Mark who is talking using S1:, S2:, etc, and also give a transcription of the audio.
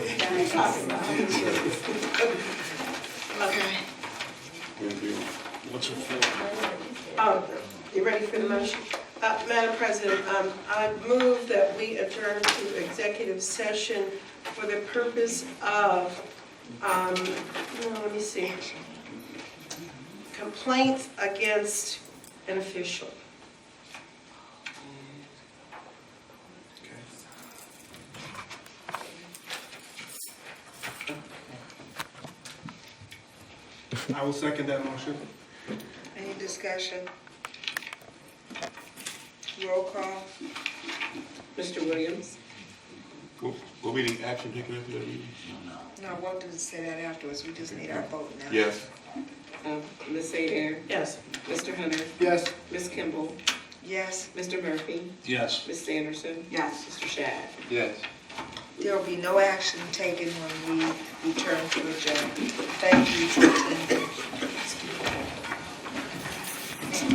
S1: you talking about? Okay,
S2: What's your feel?
S1: um, you ready for the motion? Uh, Madam President, um, I move that we adjourn to executive session for the purpose of, um, no, let me see. Complaints against an official.
S3: I will second that motion.
S4: Any discussion? Roll call.
S1: Mr. Williams?
S2: Will, will be the action taken after that meeting?
S4: No, we'll do say that afterwards, we just need our vote now.
S2: Yes.
S5: Um, Ms. Adair,
S1: Yes.
S5: Mr. Hunter,
S3: Yes.
S5: Ms. Kimball,
S4: Yes,
S5: Mr. Murphy,
S2: Yes.
S5: Ms. Sanderson.
S4: Yes.
S5: Mr. Shad.
S2: Yes.
S4: there'll be no action taken when we return to adjourn. Thank you.